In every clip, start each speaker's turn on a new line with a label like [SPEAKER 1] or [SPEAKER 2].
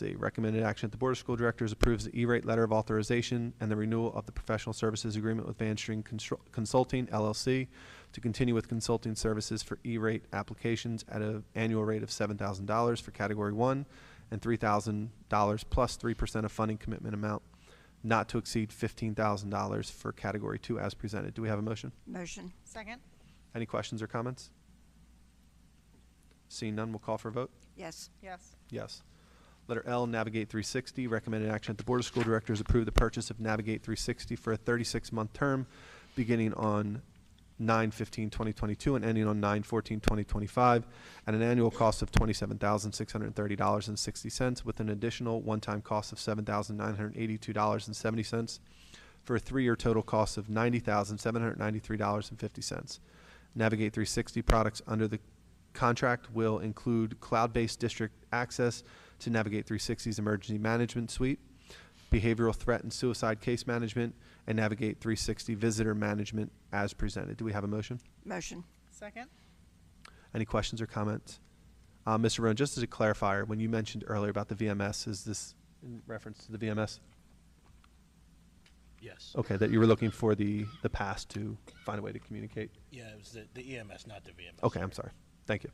[SPEAKER 1] The recommended action at the Board of School Directors approves the E-rate letter of authorization and the renewal of the professional services agreement with Van String Constru- Consulting LLC to continue with consulting services for E-rate applications at an annual rate of seven thousand dollars for category one and three thousand dollars plus three percent of funding commitment amount not to exceed fifteen thousand dollars for category two as presented. Do we have a motion?
[SPEAKER 2] Motion.
[SPEAKER 3] Second?
[SPEAKER 1] Any questions or comments? Seeing none, we'll call for a vote.
[SPEAKER 2] Yes.
[SPEAKER 3] Yes.
[SPEAKER 1] Yes. Letter L, Navigate 360, recommended action at the Board of School Directors approve the purchase of Navigate 360 for a 36-month term beginning on 9/15/2022 and ending on 9/14/2025 at an annual cost of $27,630.60 with an additional one-time cost of $7,982.70 for a three-year total cost of $90,793.50. Navigate 360 products under the contract will include cloud-based district access to Navigate 360's emergency management suite, behavioral threat and suicide case management, and Navigate 360 visitor management as presented. Do we have a motion?
[SPEAKER 2] Motion.
[SPEAKER 3] Second?
[SPEAKER 1] Any questions or comments? Uh, Mr. Roan, just as a clarifier, when you mentioned earlier about the VMS, is this in reference to the VMS?
[SPEAKER 4] Yes.
[SPEAKER 1] Okay, that you were looking for the, the pass to find a way to communicate?
[SPEAKER 4] Yeah, it was the, the EMS, not the VMS.
[SPEAKER 1] Okay, I'm sorry. Thank you.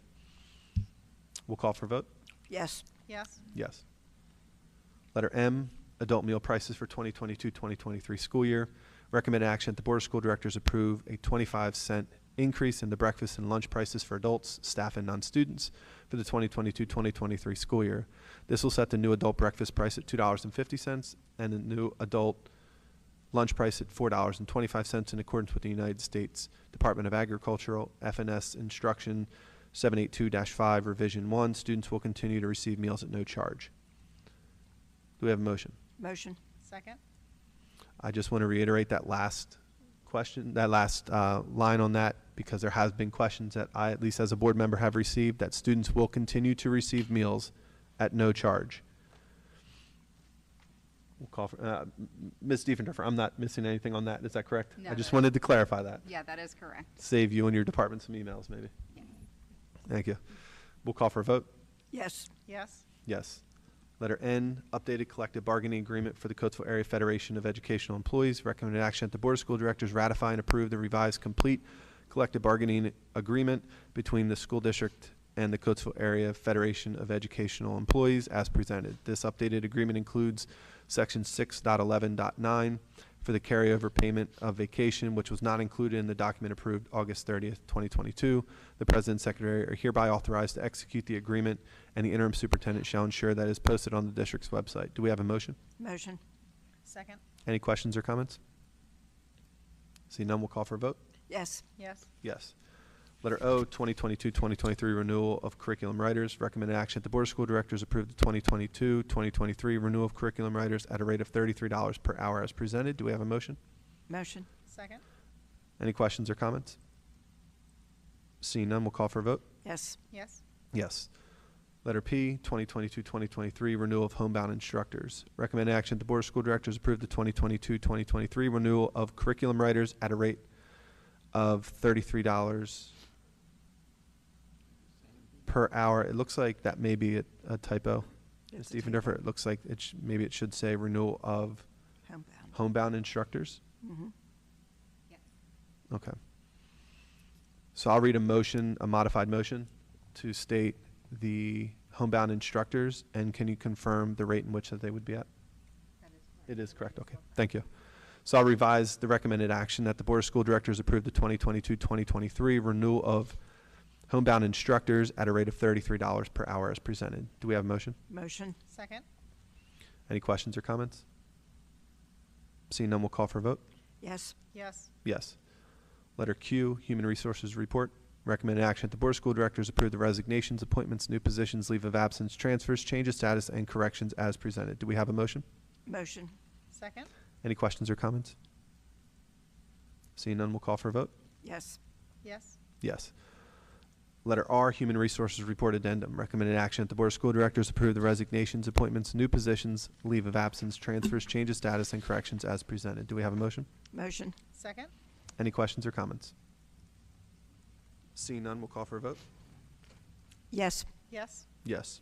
[SPEAKER 1] We'll call for vote.
[SPEAKER 2] Yes.
[SPEAKER 3] Yes.
[SPEAKER 1] Yes. Letter M, adult meal prices for 2022-2023 school year. Recommend action that the Board of School Directors approve a 25 cent increase in the breakfast and lunch prices for adults, staff, and non-students for the 2022-2023 school year. This will set the new adult breakfast price at $2.50 and the new adult lunch price at $4.25 in accordance with the United States Department of Agricultural FNS Instruction 782-5 Revision 1. Students will continue to receive meals at no charge. Do we have a motion?
[SPEAKER 2] Motion.
[SPEAKER 3] Second?
[SPEAKER 1] I just want to reiterate that last question, that last uh, line on that, because there has been questions that I, at least as a board member, have received, that students will continue to receive meals at no charge. We'll call for, uh, M- Ms. Diefendorfer, I'm not missing anything on that, is that correct?
[SPEAKER 5] No,
[SPEAKER 1] I just
[SPEAKER 5] that-
[SPEAKER 1] wanted to clarify that.
[SPEAKER 5] Yeah, that is correct.
[SPEAKER 1] Save you and your department some emails, maybe. Thank you. We'll call for a vote.
[SPEAKER 2] Yes.
[SPEAKER 3] Yes.
[SPEAKER 1] Yes. Letter N, updated collective bargaining agreement for the Coatesville Area Federation of Educational Employees. Recommended action that the Board of School Directors ratify and approve the revised complete collective bargaining agreement between the school district and the Coatesville Area Federation of Educational Employees as presented. This updated agreement includes section 6.11.9 for the carryover payment of vacation, which was not included in the document approved August 30th, 2022. The president and secretary are hereby authorized to execute the agreement, and the interim superintendent shall ensure that it is posted on the district's website. Do we have a motion?
[SPEAKER 2] Motion.
[SPEAKER 3] Second?
[SPEAKER 1] Any questions or comments? Seeing none, we'll call for a vote.
[SPEAKER 2] Yes.
[SPEAKER 3] Yes.
[SPEAKER 1] Yes. Letter O, 2022-2023 renewal of curriculum writers. Recommended action, that the Board of School Directors approve the 2022-2023 renewal of curriculum writers at a rate of $33 per hour as presented. Do we have a motion?
[SPEAKER 2] Motion.
[SPEAKER 3] Second?
[SPEAKER 1] Any questions or comments? Seeing none, we'll call for a vote.
[SPEAKER 2] Yes.
[SPEAKER 3] Yes.
[SPEAKER 1] Yes. Letter P, 2022-2023 renewal of homebound instructors. Recommend action, that the Board of School Directors approve the 2022-2023 renewal of curriculum writers at a rate of $33 per hour. It looks like that may be a a typo. Ms.
[SPEAKER 2] It's a
[SPEAKER 1] Diefendorfer,
[SPEAKER 2] typo.
[SPEAKER 1] it looks like it, sh- maybe it should say renewal of
[SPEAKER 2] Homebound.
[SPEAKER 1] homebound instructors.
[SPEAKER 2] Mhm.
[SPEAKER 5] Yes.
[SPEAKER 1] Okay. So I'll read a motion, a modified motion, to state the homebound instructors, and can you confirm the rate in which that they would be at?
[SPEAKER 5] That is correct.
[SPEAKER 1] It is correct, okay, thank you. So I'll revise the recommended action that the Board of School Directors approve the 2022-2023 renewal of homebound instructors at a rate of $33 per hour as presented. Do we have a motion?
[SPEAKER 2] Motion.
[SPEAKER 3] Second?
[SPEAKER 1] Any questions or comments? Seeing none, we'll call for a vote.
[SPEAKER 2] Yes.
[SPEAKER 3] Yes.
[SPEAKER 1] Yes. Letter Q, Human Resources Report. Recommended action that the Board of School Directors approve the resignations, appointments, new positions, leave of absence, transfers, change of status, and corrections as presented. Do we have a motion?
[SPEAKER 2] Motion.
[SPEAKER 3] Second?
[SPEAKER 1] Any questions or comments? Seeing none, we'll call for a vote.
[SPEAKER 2] Yes.
[SPEAKER 3] Yes.
[SPEAKER 1] Yes. Letter R, Human Resources Report Addendum. Recommended action that the Board of School Directors approve the resignations, appointments, new positions, leave of absence, transfers, change of status, and corrections as presented. Do we have a motion?
[SPEAKER 2] Motion.
[SPEAKER 3] Second?
[SPEAKER 1] Any questions or comments? Seeing none, we'll call for a vote.
[SPEAKER 2] Yes.
[SPEAKER 3] Yes.
[SPEAKER 1] Yes.